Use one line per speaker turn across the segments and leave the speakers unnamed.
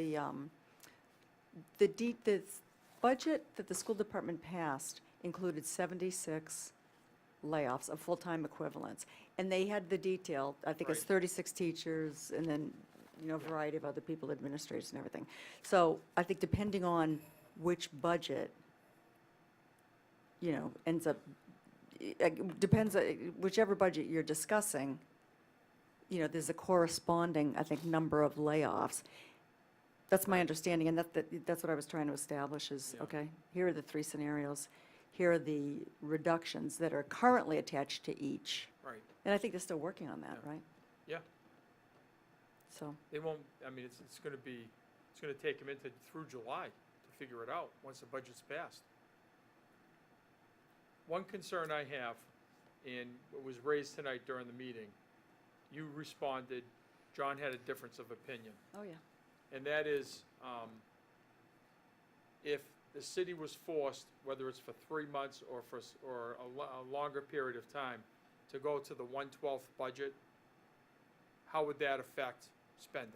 The, um, the de the budget that the school department passed included 76 layoffs of full-time equivalents. And they had the detail, I think it's 36 teachers and then, you know, a variety of other people, administrators and everything. So I think depending on which budget, you know, ends up, it depends, uh, whichever budget you're discussing, you know, there's a corresponding, I think, number of layoffs. That's my understanding, and that, that- that's what I was trying to establish is, okay, here are the three scenarios. Here are the reductions that are currently attached to each.
Right,
And I think they're still working on that, right?
yeah,
So,
they won't, I mean, it's, it's gonna be, it's gonna take them into, through July to figure it out, once the budget's passed. One concern I have, and it was raised tonight during the meeting, you responded, John had a difference of opinion,
oh, yeah.
and that is, um, if the city was forced, whether it's for three months or for, s- or a lo- a longer period of time, to go to the one-twelfth budget, how would that affect spending?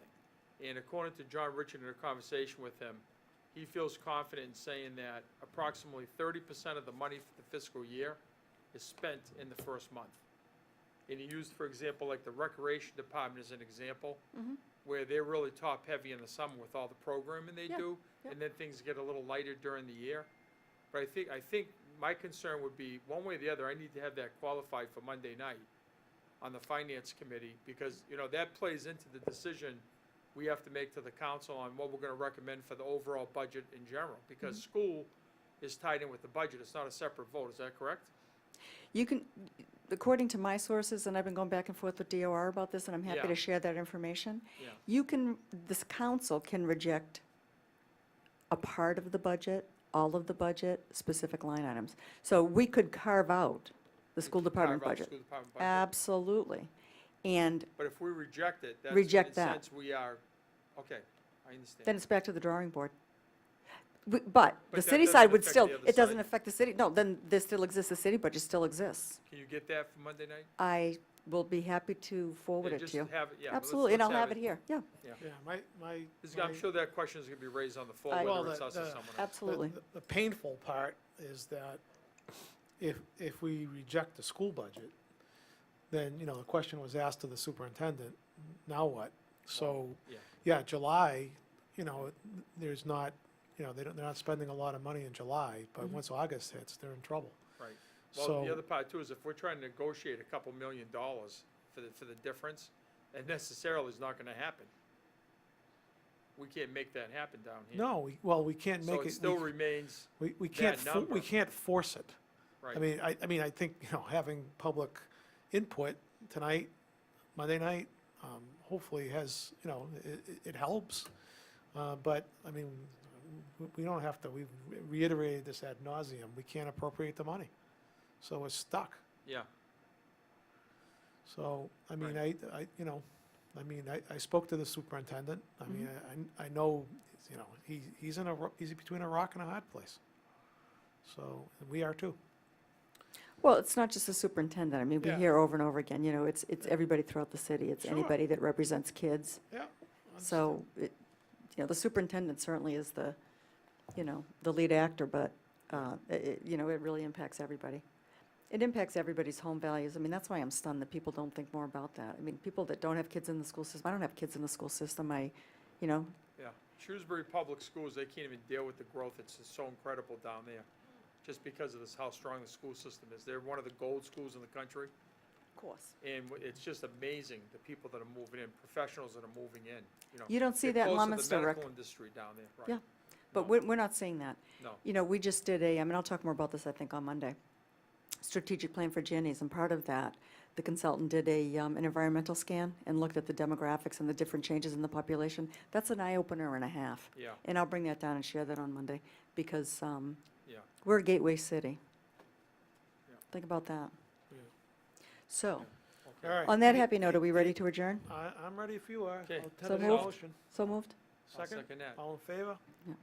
And according to John Richard in a conversation with him, he feels confident in saying that approximately thirty percent of the money for the fiscal year is spent in the first month. And he used, for example, like the recreation department as an example, where they're really top-heavy in the summer with all the programming they
Yeah,
do,
yeah.
and then things get a little lighter during the year. But I think, I think my concern would be, one way or the other, I need to have that qualified for Monday night on the finance committee, because, you know, that plays into the decision we have to make to the council on what we're gonna recommend for the overall budget in general, because
Mm-hmm.
school is tied in with the budget, it's not a separate vote, is that correct?
You can, according to my sources, and I've been going back and forth with DOR about this, and I'm happy
Yeah.
to share that information.
Yeah.
You can, this council can reject a part of the budget, all of the budget, specific line items. So we could carve out the school department
Carve out the
budget.
School department budget,
Absolutely. And
but if we reject it, that's, in
Reject
a
that.
sense, we are, okay, I understand.
then it's back to the drawing board. W- But the
But that
city
doesn't
side would
affect
still,
the other
it doesn't
side.
affect the city, no, then this still exists, the city budget still exists.
Can you get that for Monday night?
I will be happy to forward
Yeah,
it
just
to you.
have it- yeah, let's-
Absolutely, and
let's
I'll have it here, yeah,
Yeah, my, my.
This- I'm
my-
sure that question is gonna be raised on the floor,
I- Well,
whether it's
the-
us or
the-
someone else.
the-
absolutely.
the- The painful part is that if, if we reject the school budget, then, you know, the question was asked to the superintendent, now what? So,
Yeah.
yeah, July, you know, there's not, you know, they don't, they're not spending a lot of money in July, but once August hits, they're in trouble.
Right. Well, the
So-
other part too is if we're trying to negotiate a couple million dollars for the, for the difference, that necessarily is not gonna happen. We can't make that happen down here.
No, we, well, we can't
So
make
it
it,
still
we,
remains,
we- we can't,
that
fo-
number.
we can't force it.
right.
I mean, I, I mean, I think, you know, having public input tonight, Monday night, um, hopefully has, you know, it, it helps. Uh, but, I mean, we- we don't have to, we've reiterated this ad nauseum. we can't appropriate the money. So we're stuck.
Yeah,
So, I mean, I, I, you know, I mean, I, I spoke to the superintendent. I mean, I, I know, you know, he, he's in a, ro- he's between a rock and a hard place. So, and we are too.
Well, it's not just the superintendent, I mean, we
Yeah.
hear over and over again, you know, it's, it's everybody throughout the city, it's
Sure.
anybody that represents kids.
Yeah.
So, it, you know, the superintendent certainly is the, you know, the lead actor, but, uh, it- it, you know, it really impacts everybody. It impacts everybody's home values. I mean, that's why I'm stunned that people don't think more about that. I mean, people that don't have kids in the school system, I don't have kids in the school system, I, you know,
yeah. Shrewsbury Public Schools, they can't even deal with the growth. It's just so incredible down there. Just because of this, how strong the school system is. They're one of the gold schools in the country.
of course.
And w- it's just amazing, the people that are moving in, professionals that are moving in, you know.
You don't see
They're
that in
close to
Leominster,
The
Rick.
medical industry down there, right?
Yeah. But
No.
we're, we're not seeing that.
No,
You know, we just did a, I mean, I'll talk more about this, I think, on Monday, strategic plan for Jenny's, and part of that, the consultant did a, um, an environmental scan and looked at the demographics and the different changes in the population. That's an eye-opener and a half.
yeah,
And I'll bring that down and share that on Monday, because um,
yeah.
we're a gateway city.
Yeah.
Think about that.
Yeah.
So,
Okay.
All right.
on that happy note, are we ready to adjourn?
I, I'm ready if you are.
Okay.
I'll
So
entertain a
moved.
motion.
So moved?
I'll
Second,
second that.
all in favor?
Yeah.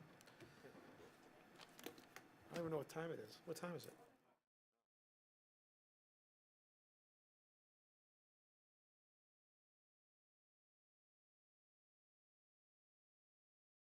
I don't even know what time it is. What time is it?